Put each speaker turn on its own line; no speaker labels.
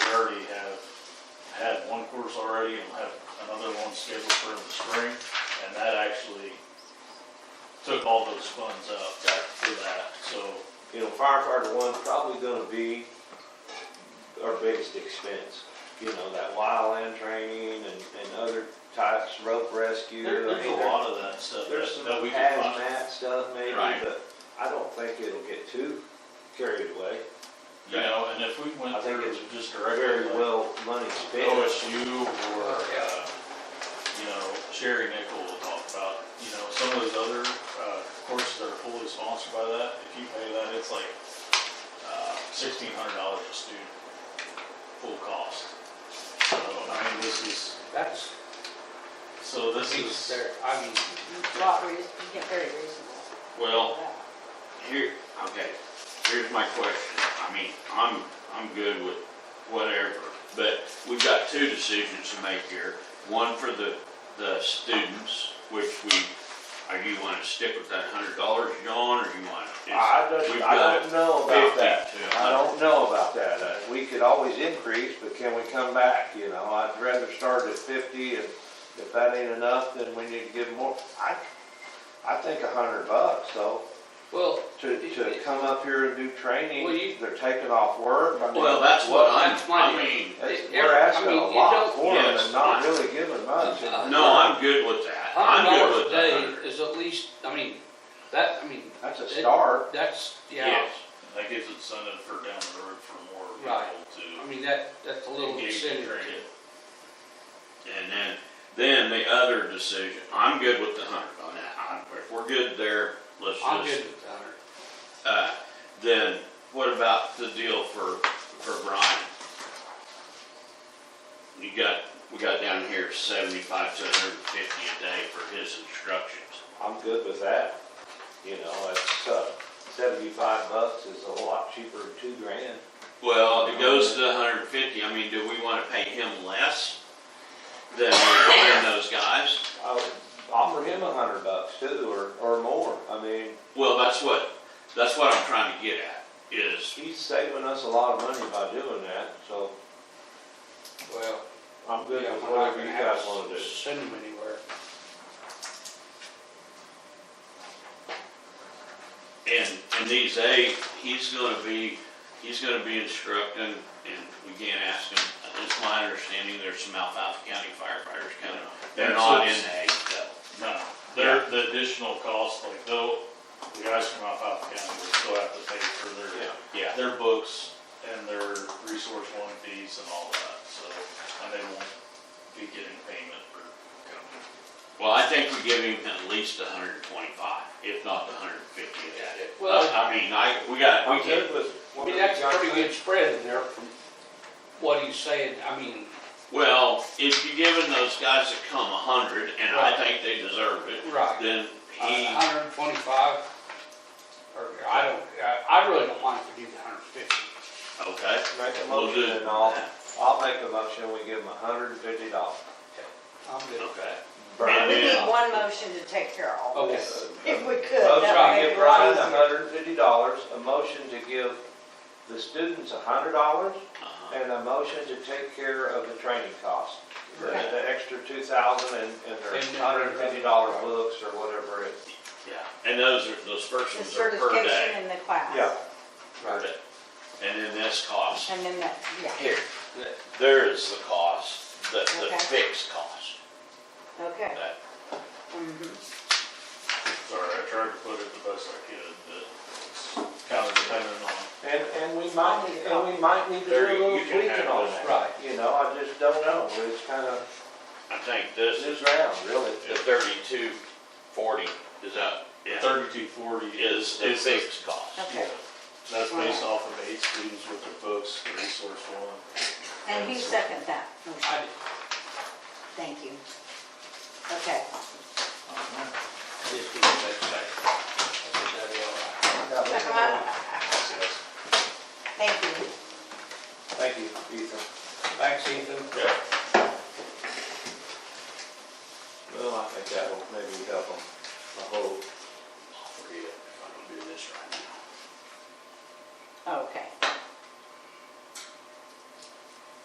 course already and have another one scheduled for the spring. And that actually took all those funds out for that, so,
You know, firefighter one's probably gonna be our biggest expense. You know, that wildland training and, and other types, rope rescue.
there-
I
there's a
mean,
lot of that stuff
There's some
that- that we can find.
hazmat stuff maybe,
Right.
but I don't think it'll get too carried away.
You know, and if we
I
went
think
through
it's
it just
Very
directly like
well money
Oh,
spent.
OSU or, uh, you know, Sherry Nickel will talk about, you know, some of those other, uh, courses that are fully sponsored by that, if you pay that, it's like, uh, sixteen hundred dollars a student, full cost. So, I mean, this is,
That's,
so this
he's
is,
there, I mean,
lot, rea- you get very reasonable.
Well, here, okay, here's my question. I mean, I'm, I'm good with whatever, but we've got two decisions to make here. One for the, the students, which we, are you wanna stick with that hundred dollars, John, or you wanna?
I
We've
don't, I
got
don't know about that.
50 to
I don't know about that. Uh, We could always increase, but can we come back, you know? I'd rather start at fifty and if that ain't enough, then we need to give more. I, I think a hundred bucks, so
well,
to, to come up here and do
Well, you-
training, they're taking off work. I mean,
Well, that's what I'm,
That's my-
I mean,
that's-
it-
We're asking
I
a
mean, you
lot
don't-
for them
yes,
and not
I-
really giving much.
Uh,
no, I'm good with that. I'm
hundred
good
dollars a
with that
day
hundred.
is at least, I mean, that, I mean,
That's a
it-
start.
that's, yeah,
Yes,
that gives incentive for down the road for more
Right.
people
I mean, that, that's a
to
little
engage in
incentive to
training.
and then, then the other decision, I'm good with the hundred on that. I- If we're good there, let's just.
I'm good with that.
Uh, then what about the deal for, for Brian? You got, we got down here seventy-five to hundred and fifty a day for his instructions.
I'm good with that. You know, it's, uh, seventy-five bucks is a lot cheaper than two grand.
Well, it goes to hundred and fifty, I mean, do we wanna pay him less than we're paying those guys?
I would offer him a hundred bucks too, or, or more. I mean,
Well, that's what, that's what I'm trying to get at, is,
he's saving us a lot of money by doing that, so
Well,
I'm good
yeah,
with
we're not
whatever
gonna
you
have
guys wanna do.
to send them anywhere.
and, and these eight, he's gonna be, he's gonna be instructing, and we can't ask him, it's my understanding, there's some Alphafa County firefighters coming up. They're not in the eight though.
No, they're, the additional cost, like though, the guys from Alphafa County will still have to pay for their,
Yeah,
their books and their resource loan fees and all that, so, and they won't be getting payment for coming.
well, I think we give him at least a hundred and twenty-five, if not the hundred and fifty of that.
Well-
I I mean, I, we got, we
I'm
can,
good with.
I
what
mean, that's a
you
pretty
guys
good spread in there from what he's saying, I mean,
well, if you're giving those guys that come a hundred, and I think they deserve it,
right,
then he,
a hundred and twenty-five, or, I don't, I, I really don't mind if we do the hundred and fifty.
okay,
think. Make a
we'll do
motion
it.
and I'll, I'll make a motion, we give him a hundred and fifty dollars.
I'm good.
Okay.
We
And
need
then-
one motion to take care of all
Okay.
this, if we could.
Motion
that
to
would make
give
it a lot
Brian a
easier.
hundred and fifty dollars, a motion to give the students a hundred dollars,
uh-huh.
and a motion to take care of the training cost. The
Okay.
the extra two thousand and, and their
And then-
hundred and fifty dollar books or whatever it.
Yeah, and those are, those first
The
ones are per day.
certification in the class.
Heard it. And then this cost,
And then that, yeah,
here, there is the cost, the, the
Okay.
fixed cost.
okay.
That-
Mhm.
Sorry, I tried to put it the best I could, but it's kind of dependent on,
And, and we might, and we might need to do
There,
a little
you can have
tweaking on
those.
that.
Right.
You know, I just don't know, it's kind of
I think this is
new ground, really.
the thirty-two forty, is that, yeah,
thirty-two forty is,
is the
is, the-
fixed cost.
Okay,
that's based off of eight students with their books, the resource loan.
and who seconded that? motion?
I,
Thank you. Okay,
Just give me that second. That'd be all right.
Check 'em out. thank you.
Thank you, Ethan.
Thanks, Ethan.
Yeah.
Well, I think that will maybe help them, I hope.